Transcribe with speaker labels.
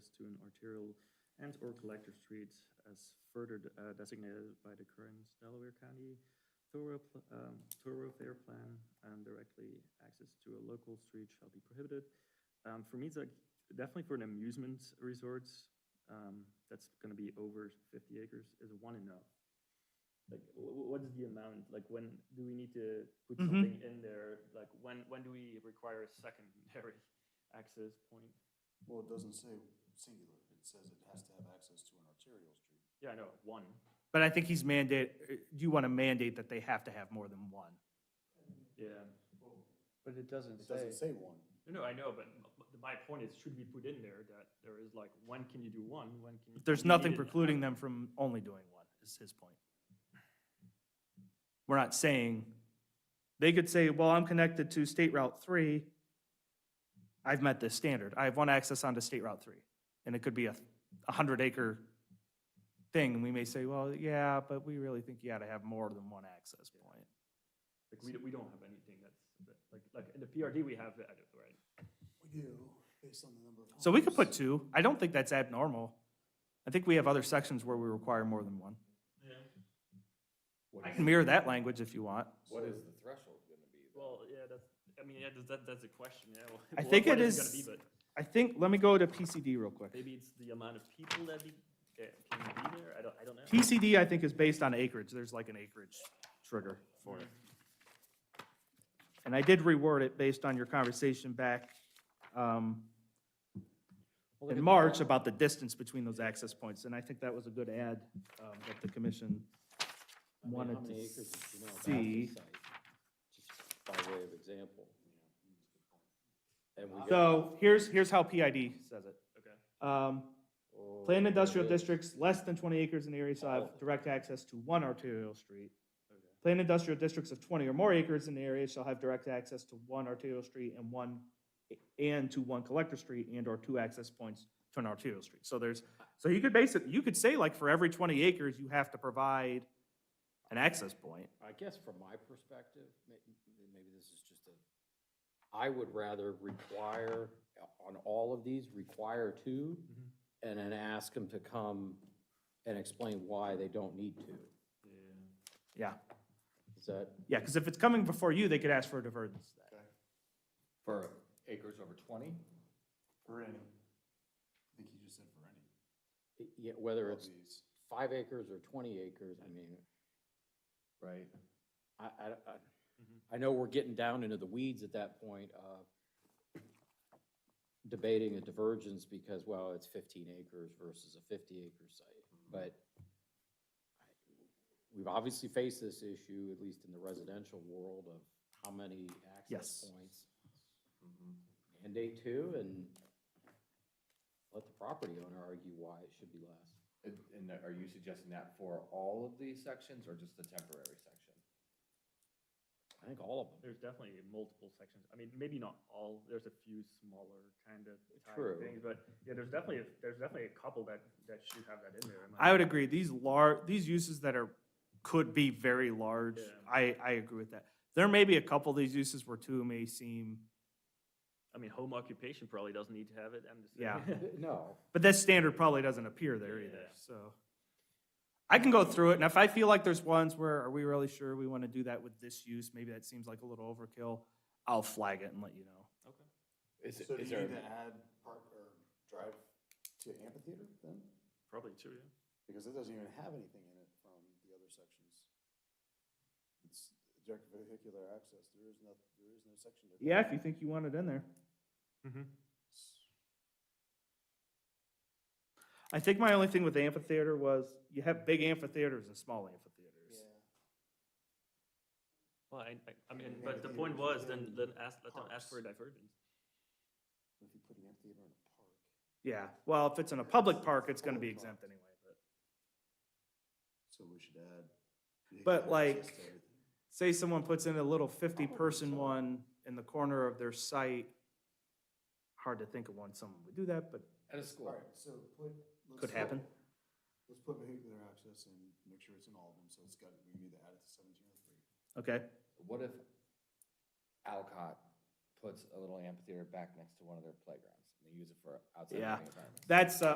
Speaker 1: arterial and/or collector streets as further de- uh, designated by the current Delaware County thorough pl- um, thoroughfare plan, and directly access to a local street shall be prohibited. Um, For me, it's like, definitely for an amusement resort, um, that's gonna be over fifty acres, is one enough? Like, wh- wh- what is the amount? Like, when do we need to put
Speaker 2: Mhm.
Speaker 1: something in there? Like, when, when do we require a secondary access point?
Speaker 3: Well, it doesn't say singular, it says it has to have access to an arterial street.
Speaker 1: Yeah, I know, one.
Speaker 2: But I think he's mandate, uh, you want to mandate that they have to have more than one.
Speaker 1: Yeah.
Speaker 4: But it doesn't
Speaker 3: It doesn't
Speaker 4: say,
Speaker 3: say one.
Speaker 1: No, no, I know, but m- m- my point is, should we put in there that there is like, when can you do one, when can you?
Speaker 2: There's
Speaker 1: when you
Speaker 2: nothing
Speaker 1: need it?
Speaker 2: precluding them from only doing one, is his point. We're not saying, they could say, well, I'm connected to State Route 3. I've met this standard. I have one access onto State Route 3. And it could be a 100-acre thing, and we may say, well, yeah, but we really think you got to have more than one access point.
Speaker 1: Like, we, don't- we don't have anything that's, that- like, like, in the PRD, we have that, right?
Speaker 3: We do, based on the number of.
Speaker 2: So we could put two. I don't think that's abnormal. I think we have other sections where we require more than one.
Speaker 1: Yeah.
Speaker 5: What
Speaker 2: I
Speaker 5: is-
Speaker 2: can mirror that language if you want.
Speaker 5: What is the threshold gonna be? though?
Speaker 1: Well, yeah, that's, I mean, yeah, that's- that, that's a question, yeah. well,
Speaker 2: I
Speaker 1: what-
Speaker 2: think
Speaker 1: what
Speaker 2: it
Speaker 1: gonna
Speaker 2: is-
Speaker 1: be, but
Speaker 2: I think, let me go to PCD real quick.
Speaker 1: Maybe it's the amount of people that be, eh, can be there, I don't, I don't know.
Speaker 2: PCD, I think, is based on acreage. There's like an acreage trigger for it. And I did reword it based on your conversation back um,
Speaker 4: Well, look
Speaker 2: in
Speaker 4: at-
Speaker 2: March about the distance between those access points. And I think that was a good add um, that the commission
Speaker 4: I mean,
Speaker 2: wanted
Speaker 4: how many
Speaker 2: to
Speaker 4: acres did you know about
Speaker 2: see.
Speaker 4: this site? Just By way of example. And we. got-
Speaker 2: So here's, here's how PID says it.
Speaker 1: Okay.
Speaker 2: Um,
Speaker 4: Oh,
Speaker 2: Planned industrial
Speaker 4: yeah.
Speaker 2: districts less than twenty acres in the area shall have direct access to one arterial street. Planned industrial districts of twenty or more acres in the area shall have direct access to one arterial street and one, and to one collector street and or two access points to an arterial street. So there's, so you could basically, you could say like for every twenty acres, you have to provide an access point.
Speaker 4: I guess from my perspective, may- maybe this is just a, I would rather require, on all of these, require two,
Speaker 1: Mhm.
Speaker 2: Mm-hmm.
Speaker 4: and then ask them to come and explain why they don't need to.
Speaker 1: Yeah.
Speaker 2: Yeah,
Speaker 4: Is that
Speaker 2: yeah, because if it's coming before you, they could ask for a divergence. then.
Speaker 4: for acres over twenty?
Speaker 3: For any. I think you just said for any.
Speaker 4: Yeah, whether
Speaker 3: of
Speaker 4: it's
Speaker 3: these.
Speaker 4: five acres or twenty acres, I mean,
Speaker 5: Right.
Speaker 4: I, I, I, I know we're getting down into the weeds at that point of debating a divergence because, well, it's fifteen acres versus a fifty acre site, but we've obviously faced this issue, at least in the residential world, of how many access
Speaker 2: Yes.
Speaker 4: points. Mandate two and let the property owner argue why it should be less.
Speaker 5: And, and are you suggesting that for all of these sections or just the temporary section?
Speaker 4: I think all of them.
Speaker 1: There's definitely multiple sections. I mean, maybe not all. There's a few smaller kind of
Speaker 4: True.
Speaker 1: things, but yeah, there's definitely a, there's definitely a couple that that should have that in there. in my
Speaker 2: I would
Speaker 1: opinion.
Speaker 2: agree, these lar, these uses that are, could be very large,
Speaker 1: Yeah.
Speaker 2: I, I agree with that. There may be a couple of these uses where two may seem,
Speaker 1: I mean, home occupation probably doesn't need to have it. I'm just
Speaker 2: Yeah.
Speaker 1: saying.
Speaker 4: No,
Speaker 2: but this standard probably doesn't appear there either,
Speaker 1: Yeah.
Speaker 2: so. I can go through it, and if I feel like there's ones where, are we really sure we want to do that with this use, maybe that seems like a little overkill, I'll flag it and let you know.
Speaker 5: Is,
Speaker 3: So do
Speaker 5: is
Speaker 3: you
Speaker 5: there,
Speaker 3: need to add park or drive to amphitheater then?
Speaker 1: probably too. Yeah.
Speaker 3: Because it doesn't even have anything in it from the other sections. It's direct vehicular access, there is no, there is no section. to-
Speaker 2: Yeah, if you think you want it in there. I think my only thing with the amphitheater was, you have big amphitheaters and small amphitheaters.
Speaker 3: Yeah.
Speaker 1: Well, I, I, I mean,
Speaker 3: Yeah,
Speaker 1: but the
Speaker 3: maybe
Speaker 1: point
Speaker 3: we
Speaker 1: was
Speaker 3: can
Speaker 1: then then ask let them ask
Speaker 3: parks.
Speaker 1: for a divergence.
Speaker 3: If you put an amphitheater in a park.
Speaker 2: Yeah, well, if it's in a public park, it's gonna be exempt anyway, but.
Speaker 3: So we should add.
Speaker 2: But,
Speaker 3: vehicular
Speaker 2: like,
Speaker 3: access to everything.
Speaker 2: say someone puts in a little fifty-person one in the corner of their site, hard to think of one someone would do that, but
Speaker 5: at a school?
Speaker 3: Alright, so put. let's
Speaker 2: could
Speaker 3: put-
Speaker 2: happen.
Speaker 3: Let's put vehicular access and make sure it's in all of them, so it's got, we need to add it to seventeen oh three.
Speaker 2: Okay,
Speaker 5: What if Alcott puts a little amphitheater back next to one of their playgrounds and they use it for outside
Speaker 2: Yeah.
Speaker 5: learning environments?
Speaker 2: that's, uh,